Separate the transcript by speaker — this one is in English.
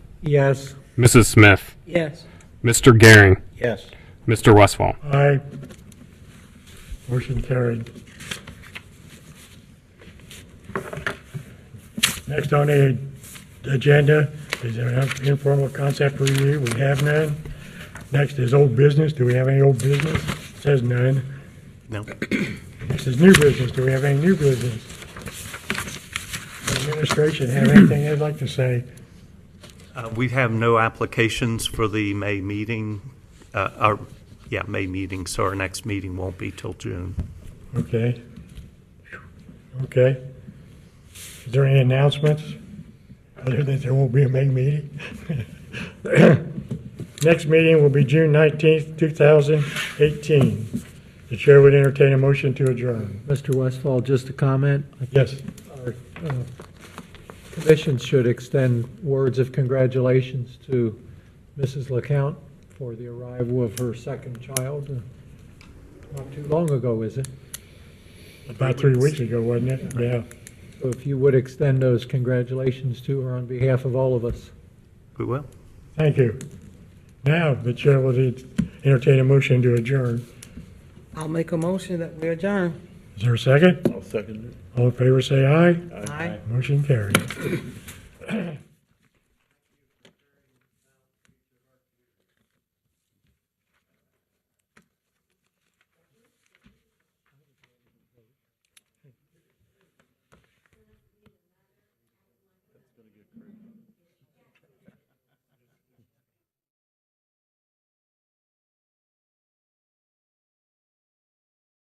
Speaker 1: Yes.
Speaker 2: Mrs. Smith,
Speaker 1: Yes.
Speaker 2: Mr. Gehring,
Speaker 3: Yes.
Speaker 2: Mr. Westfall.
Speaker 4: Aye. Motion carried. Next on the agenda is an informal concept review. We have none. Next is old business. Do we have any old business? Says none.
Speaker 3: No.
Speaker 4: Next is new business. Do we have any new business? Administration have anything they'd like to say?
Speaker 3: Uh, We have no applications for the May meeting, uh, our, yeah, May meeting, so our next meeting won't be till June.
Speaker 4: Okay. Okay. Is there any announcements? Other than there won't be a May meeting? Next meeting will be June nineteenth, two thousand eighteen. The chair would entertain a motion to adjourn.
Speaker 1: Mr. Westfall, just a comment.
Speaker 4: Yes,
Speaker 1: Our uh, commission should extend words of congratulations to Mrs. LeCount for the arrival of her second child uh, not too long ago, is it?
Speaker 4: about three weeks ago, wasn't it? Yeah.
Speaker 1: So if you would extend those congratulations to her on behalf of all of us.
Speaker 3: We will.
Speaker 4: Thank you. Now, the chair will entertain a motion to adjourn.
Speaker 5: I'll make a motion that we adjourn.
Speaker 4: Is there a second?
Speaker 3: I'll second
Speaker 4: All in favor, say aye.
Speaker 5: Aye.
Speaker 4: Motion carried.